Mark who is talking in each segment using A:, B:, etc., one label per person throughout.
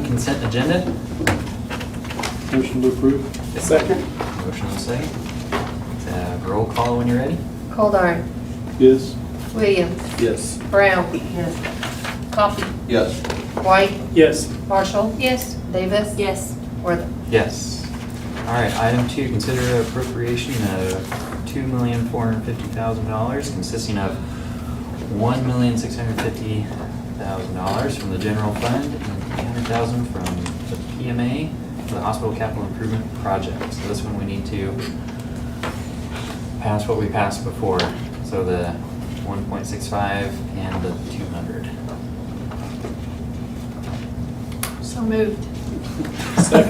A: consent agenda.
B: Motion to approve?
C: Second?
A: Motion on second. Uh, Roll call when you're ready.
D: Goldar.
B: Yes.
D: Williams.
C: Yes.
D: Brown. Coffee.
C: Yes.
D: White.
B: Yes.
D: Marshall. Yes. Davis.
E: Yes.
D: Worthing.
A: Yes. All right, item two, consider appropriation of two million four hundred fifty thousand dollars consisting of one million six hundred fifty thousand dollars from the general fund and three hundred thousand from the PMA for the hospital capital improvement project. So this one we need to pass what we passed before, so the one point six five and the two hundred.
E: So moved.
B: One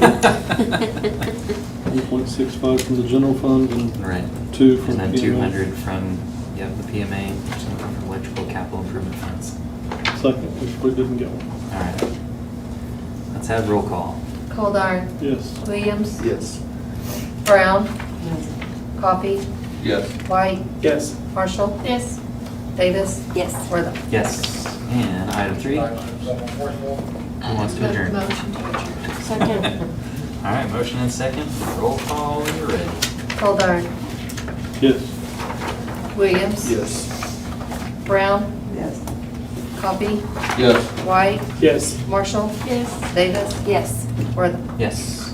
B: point six five from the general fund and
A: Right.
B: two
A: And
B: from
A: then
B: PMA.
A: two hundred from, yep, the PMA, some from electrical capital improvement funds.
B: Second, which we didn't get one.
A: All right. Let's have roll call.
D: Goldar.
B: Yes.
D: Williams.
C: Yes.
D: Brown. Coffee.
C: Yes.
D: White.
B: Yes.
D: Marshall.
E: Yes.
D: Davis.
E: Yes.
D: Worthing.
A: Yes. And item three, who wants to adjourn?
E: Motion to adjourn.
A: All right, motion and second, roll call, when you're ready.
D: Goldar.
B: Yes.
D: Williams.
C: Yes.
D: Brown.
E: Yes.
D: Coffee.
C: Yes.
D: White.
B: Yes.
D: Marshall.
E: Yes.
D: Davis.
E: Yes.
D: Worthing.
A: Yes.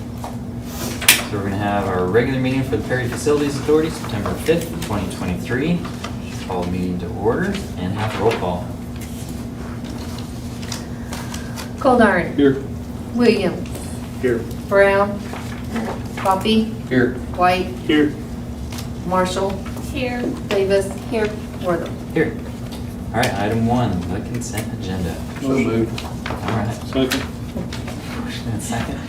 A: So we're gonna have our regular meeting for the Perry Facilities Authority, September fifth, twenty twenty-three. Call meeting to order and have roll call.
D: Goldar.
B: Here.
D: Williams.
B: Here.
D: Brown. Coffee.
C: Here.
D: White.
B: Here.
D: Marshall.
E: Here.
D: Davis.
E: Here.
D: Worthing.
A: Here. All right, item one, the consent agenda.
C: So moved.
A: All right,
B: Second.
A: motion and second.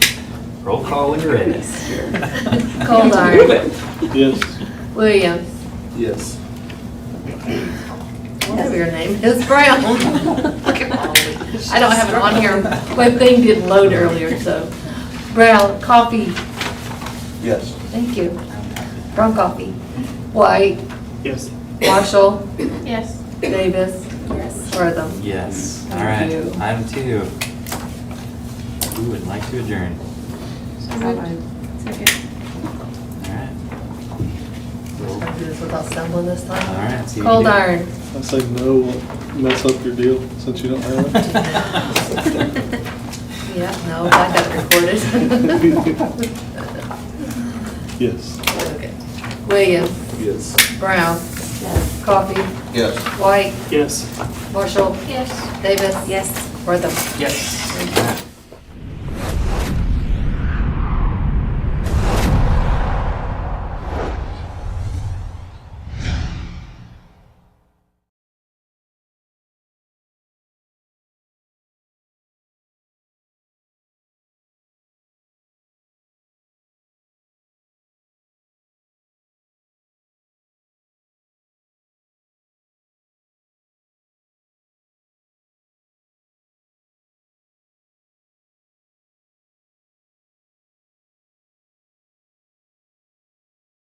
A: Roll call when you're ready.
D: Hold on.
A: Move it.
B: Yes.
D: Williams.
C: Yes.
D: Whatever your name is, Brown. I don't have it on here. My thing didn't load earlier, so. Brown, coffee.
C: Yes.
D: Thank you. Brown coffee. White,
B: Yes.
D: Marshall,
E: Yes.
D: Davis,
E: Yes.
D: Wortham.
A: Yes, all right,
D: Thank you.
A: item two. Who would like to adjourn?
E: So moved. Second.
A: All right.
D: I'll
A: Roll-
D: do this without stumbling this time.
A: All right, see what you
D: Cold
A: do.
D: iron.
B: I say no, will mess up your deal since you don't have it.
D: Yeah, no, I got it recorded.
B: Yes.
D: Okay. Williams,
C: Yes.
D: Brown,
E: Yes.
D: coffee.
C: Yes.
D: White,
B: Yes.
D: Marshall,
E: Yes.
D: Davis.
E: Yes.
D: Wortham.
A: Yes. All right.